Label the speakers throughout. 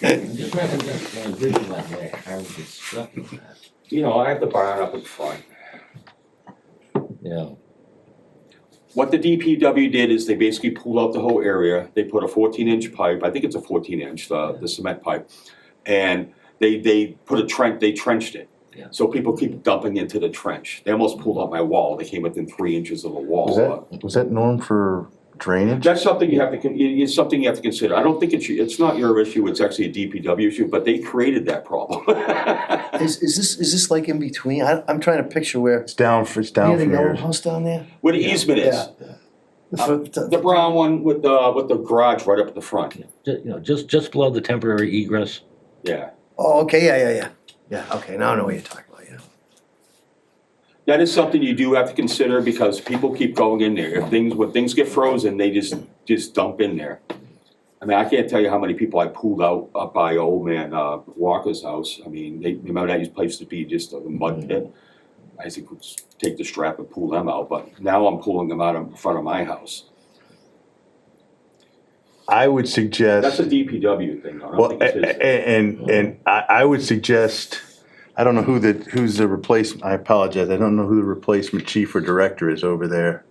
Speaker 1: it's not that that's my vision that way, I was just stuck in that. You know, I have the barn up in front. Yeah,
Speaker 2: What the DPW did is they basically pulled out the whole area, they put a fourteen inch pipe, I think it's a fourteen inch, the, the cement pipe. And they, they put a trench, they trenched it.
Speaker 1: Yeah.
Speaker 2: So people keep dumping into the trench, they almost pulled out my wall, they came within three inches of the wall.
Speaker 3: Was that, was that norm for drainage?
Speaker 2: That's something you have to, con- it- it's something you have to consider, I don't think it's, it's not your issue, it's actually a DPW issue, but they created that problem.
Speaker 4: Is, is this, is this like in between? I, I'm trying to picture where,
Speaker 3: It's down for, it's
Speaker 4: near
Speaker 3: down
Speaker 4: the
Speaker 3: from
Speaker 4: yellow
Speaker 3: here.
Speaker 4: house down there?
Speaker 2: Where the easement is,
Speaker 4: The fir- the-
Speaker 2: the brown one with the, with the garage right up at the front,
Speaker 1: ju- you know, just, just below the temporary egress.
Speaker 2: yeah.
Speaker 4: Oh, okay, yeah, yeah, yeah. Yeah, okay, now I know what you're talking about, yeah.
Speaker 2: That is something you do have to consider because people keep going in there. If things, when things get frozen, they just, just dump in there. I mean, I can't tell you how many people I pulled out up by old man, uh, Walker's house. I mean, they, remember that used place to be just a
Speaker 3: Mm-hmm.
Speaker 2: mud pit? I used to take the strap and pull them out, but now I'm pulling them out in front of my house.
Speaker 3: I would
Speaker 2: That's
Speaker 3: suggest,
Speaker 2: a DPW thing, though. I
Speaker 3: well, eh,
Speaker 2: don't think
Speaker 3: a-
Speaker 2: it's his.
Speaker 3: a- and, and I, I would suggest, I don't know who the, who's the replacement, I apologize, I don't know who the replacement chief or director is over there.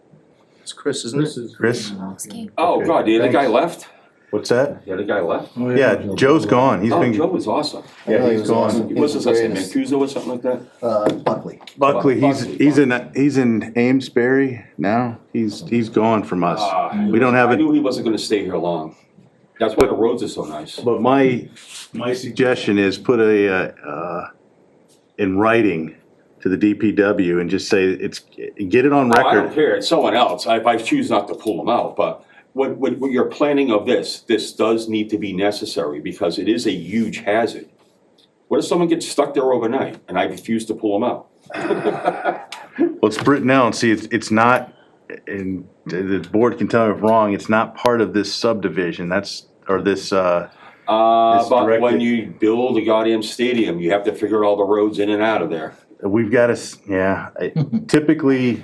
Speaker 4: It's Chris, isn't it?
Speaker 3: Chris,
Speaker 2: Oh,
Speaker 3: okay,
Speaker 2: God, the other guy left?
Speaker 3: what's that?
Speaker 2: The other guy left?
Speaker 3: Yeah, Joe's gone, he's
Speaker 2: Oh, Joe
Speaker 3: been,
Speaker 2: was awesome.
Speaker 3: yeah, he's gone.
Speaker 2: He was, his last name Mancuso or something like that?
Speaker 4: Uh, Buckley.
Speaker 3: Buckley, he's, he's in, he's in Amesbury now, he's, he's gone from us.
Speaker 2: Ah,
Speaker 3: We don't have
Speaker 2: I
Speaker 3: it.
Speaker 2: knew he wasn't gonna stay here long. That's why the roads are so nice.
Speaker 3: But my, my suggestion is put a, uh, uh, in writing to the DPW and just say it's, get it on
Speaker 2: Oh, I don't
Speaker 3: record.
Speaker 2: care, it's someone else, I, I choose not to pull them out, but when, when, when you're planning of this, this does need to be necessary, because it is a huge hazard. What if someone gets stuck there overnight, and I refuse to pull them out?
Speaker 3: Let's print it now and see, it's, it's not, and the the board can tell me if wrong, it's not part of this subdivision, that's, or this, uh,
Speaker 2: Uh,
Speaker 3: It's
Speaker 2: but when
Speaker 3: directed-
Speaker 2: you build a goddamn stadium, you have to figure all the roads in and out of there.
Speaker 3: we've got to, s- yeah, I- typically,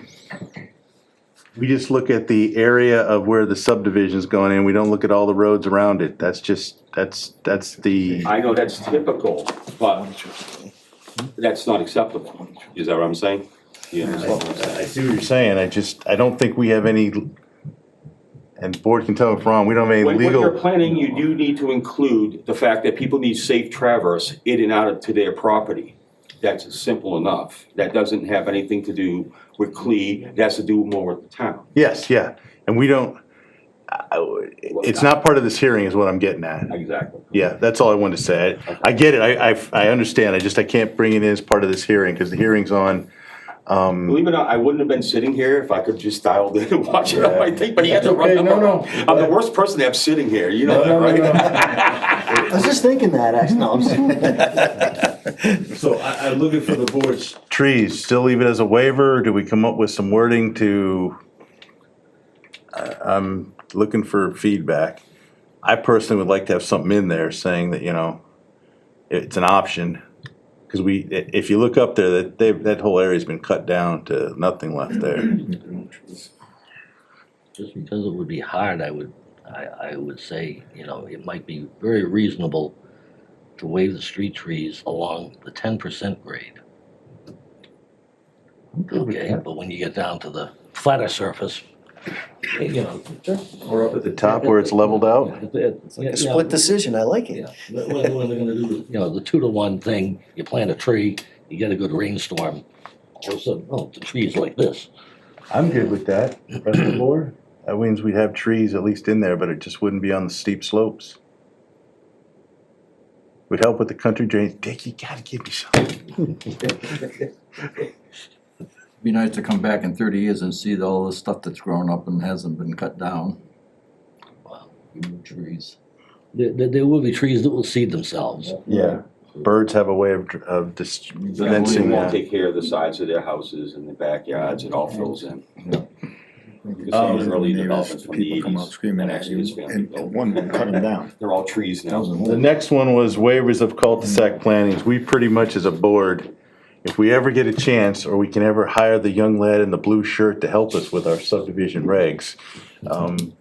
Speaker 3: we just look at the area of where the subdivision's going in, we don't look at all the roads around it, that's just, that's, that's the.
Speaker 2: I know that's typical, but that's not acceptable, is that what I'm saying? You understand what I'm saying?
Speaker 3: I see what you're saying, I just, I don't think we have any, and board can tell if wrong, we don't have any
Speaker 2: When, when you're
Speaker 3: legal.
Speaker 2: planning, you do need to include the fact that people need safe traverse in and out of to their property. That's simple enough. That doesn't have anything to do with CLE, it has to do more with the town.
Speaker 3: Yes, yeah, and we don't, I- it's not part of this hearing is what I'm getting at.
Speaker 2: Exactly.
Speaker 3: Yeah, that's all I wanted to say. I- I get it, I, I, I understand, I just, I can't bring it in as part of this hearing, because the hearing's on,
Speaker 2: Believe it or not, I wouldn't have been sitting here if I could just dialed in and watch it on my thing, but he had to run.
Speaker 5: Okay,
Speaker 2: up
Speaker 5: no,
Speaker 2: on-
Speaker 5: no.
Speaker 2: I'm the worst person to have sitting here, you know that,
Speaker 5: No, no, no,
Speaker 2: right?
Speaker 4: I was just thinking that, actually, no, I'm just.
Speaker 5: So I, I'm looking for the board's,
Speaker 3: trees, still leave it as a waiver, or do we come up with some wording to? I- I'm looking for feedback. I personally would like to have something in there saying that, you know, it's an option. Cause we, i- if you look up there, that, they, that whole area's been cut down to nothing left there.
Speaker 1: Just because it would be hard, I would, I, I would say, you know, it might be very reasonable to waive the street trees along the ten percent grade. Okay, but when you get down to the flatter surface, you know.
Speaker 3: Or up at the top where it's leveled out?
Speaker 1: It's like
Speaker 4: A split decision, I like
Speaker 1: Yeah,
Speaker 4: it.
Speaker 1: what, what what are they gonna do? You know, the two to one thing, you plant a tree, you get a good rainstorm, all of a sudden, oh, the tree's like this.
Speaker 3: I'm good with that. That means we'd have trees at least in there, but it just wouldn't be on the steep slopes. Would help with the country drains. Dick, you gotta give me something.
Speaker 6: Be nice to come back in thirty years and see all the stuff that's grown up and hasn't been cut down.
Speaker 1: Wow.
Speaker 6: New trees.
Speaker 1: There, there, there will be trees that will seed themselves.
Speaker 3: Yeah, birds have a way of, dr- of dis-
Speaker 2: They
Speaker 3: Fencing,
Speaker 2: won't
Speaker 3: yeah.
Speaker 2: take care of the sides of their houses and the backyards, it all fills in.
Speaker 5: Yeah.
Speaker 2: You can see
Speaker 5: um,
Speaker 2: the early developments
Speaker 5: neighbors,
Speaker 2: from the
Speaker 5: people come out
Speaker 2: eighties.
Speaker 5: screaming at you, and and one would cut them down.
Speaker 2: They're all trees now.
Speaker 3: The next one was waivers of cul-de-sac plantings. We pretty much as a board, if we ever get a chance, or we can ever hire the young lad in the blue shirt to help us with our subdivision regs, um,